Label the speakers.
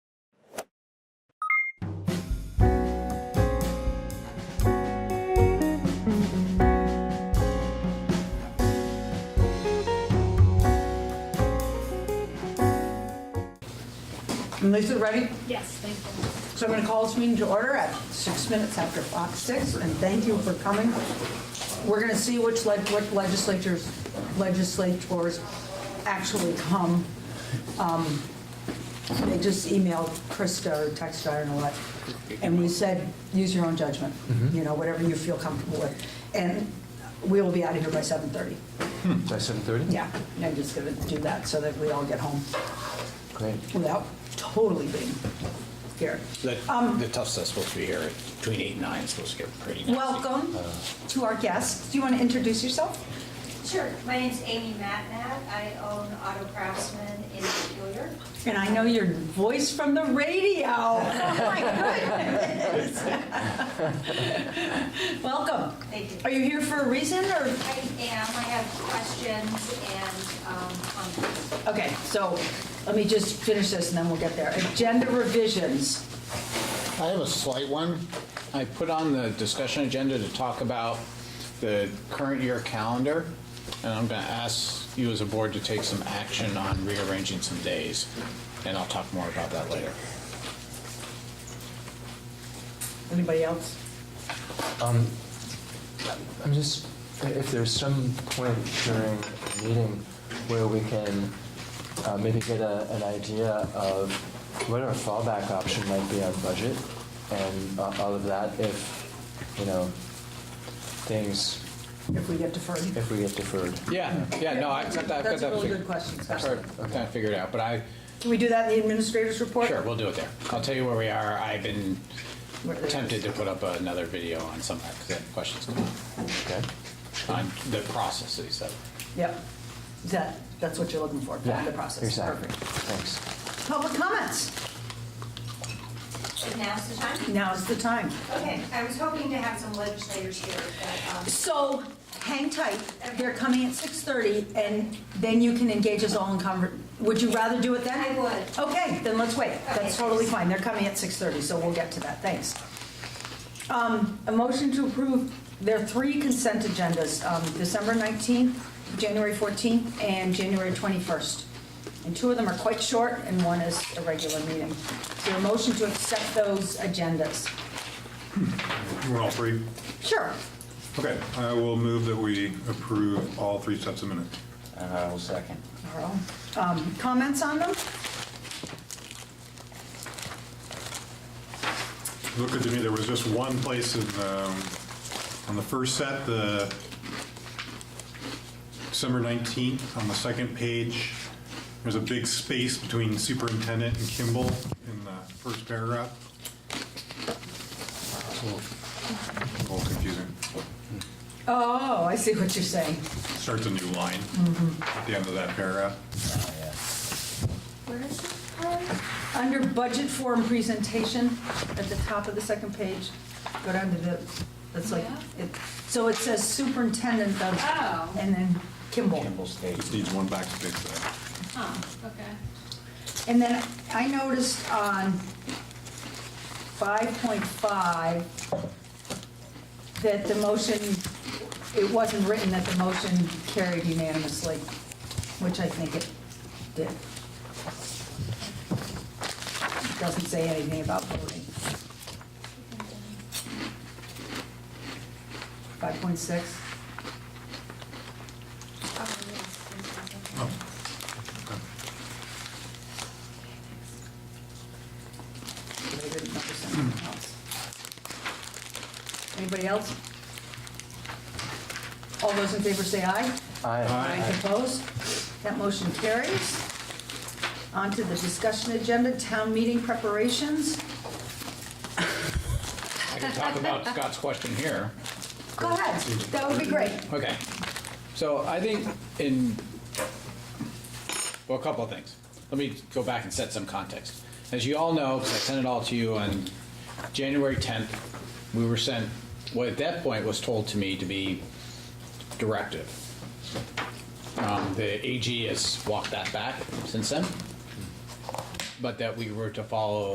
Speaker 1: And Lisa, ready?
Speaker 2: Yes, thank you.
Speaker 1: So I'm going to call this meeting to order at six minutes after Fox 6, and thank you for coming. We're going to see which leg- what legislatures, legislators actually come. Um, They just emailed Krista or texted, her, I don't know what, and we said, use your own judgment, you know, whatever you feel comfortable with. And we will be out of here by 7:30.
Speaker 3: By 7:30?
Speaker 1: Yeah, and I'm just going to do that so that we all get home
Speaker 3: Great.
Speaker 1: without totally being here.
Speaker 4: The
Speaker 1: Um,
Speaker 4: the Tufts are supposed to be here between eight and nine, it's supposed to get pretty nasty.
Speaker 1: Welcome to our guests. Do you want to introduce yourself?
Speaker 5: Sure, my name's Amy Matnack, I own Auto Craftsman in Peculiar.
Speaker 1: And I know your voice from the radio. Oh, my goodness. Welcome.
Speaker 5: Thank you.
Speaker 1: Are you here for a reason or?
Speaker 5: I am, I have questions and um, comments.
Speaker 1: Okay, so let me just finish this and then we'll get there. Agenda revisions.
Speaker 4: I have a slight one. I put on the discussion agenda to talk about the current year calendar, and I'm going to ask you as a board to take some action on rearranging some days, and I'll talk more about that later.
Speaker 1: Anybody else?
Speaker 3: I'm just, if there's some point during the meeting where we can uh, maybe get a- an idea of what our fallback option might be on budget and uh, all of that, if, you know, things,
Speaker 1: If we get deferred.
Speaker 3: if we get deferred.
Speaker 4: Yeah, yeah, no, I've got that. I've got
Speaker 1: That's a
Speaker 4: that
Speaker 1: really
Speaker 4: fig-
Speaker 1: good question,
Speaker 4: I'm
Speaker 1: Scott.
Speaker 4: sorry, I'm trying to figure it out, but I,
Speaker 1: Can we do that in the administrator's report?
Speaker 4: sure, we'll do it there. I'll tell you where we are. I've been
Speaker 1: Where it is.
Speaker 4: tempted to put up another video on some of the questions come up.
Speaker 3: Okay?
Speaker 4: on the processes of
Speaker 1: Yep. Is that, that's what you're looking for,
Speaker 3: Yeah,
Speaker 1: the process.
Speaker 3: Exactly.
Speaker 1: Perfect.
Speaker 3: Thanks.
Speaker 1: Public comments.
Speaker 5: Now's the time?
Speaker 1: Now's the time.
Speaker 5: Okay, I was hoping to have some legislators here, but um,
Speaker 1: So hang tight. They're coming at 6:30 and then you can engage us all in conver, would you rather do it then?
Speaker 5: I would.
Speaker 1: Okay, then let's wait. That's
Speaker 5: Okay.
Speaker 1: totally fine. They're coming at 6:30, so we'll get to that. Thanks. Um, A motion to approve, there are three consent agendas, um, December 19th, January 14th, and January 21st. And two of them are quite short and one is a regular meeting. So a motion to accept those agendas.
Speaker 6: We're all free?
Speaker 1: Sure.
Speaker 6: Okay, I will move that we approve all three sets of minutes.
Speaker 4: And I will second.
Speaker 1: Carl. Um, Comments on them?
Speaker 6: Look at me, there was just one place in, um, on the first set, the December 19th, on the second page, there's a big space between superintendent and Kimball in the first paragraph. It's a little- a little confusing.
Speaker 1: Oh, I see what you're saying.
Speaker 6: Starts a new line at the end of that paragraph.
Speaker 5: where is this part?
Speaker 1: Under budget form presentation, at the top of the second page, go down to the, that's like, it- so it says superintendent of,
Speaker 2: Oh.
Speaker 1: and then Kimball.
Speaker 6: Just needs one back to fix that.
Speaker 2: Huh, okay.
Speaker 1: And then I noticed on 5.5 that the motion, it wasn't written that the motion carried unanimously, which I think it did. It doesn't say anything about voting. 5.6?
Speaker 5: Oh, yes, yes, yes, yes.
Speaker 1: but I didn't notice anything else. Anybody else? All those in favor say aye.
Speaker 3: Aye.
Speaker 1: Opposed? That motion carries. On to the discussion agenda, town meeting preparations.
Speaker 4: I can talk about Scott's question here.
Speaker 1: Go ahead, that would be great.
Speaker 4: Okay. So I think in, well, a couple of things. Let me go back and set some context. As you all know, because I sent it all to you on January 10th, we were sent, what at that point was told to me to be directive. Um, The AG has walked that back since then, but that we were to follow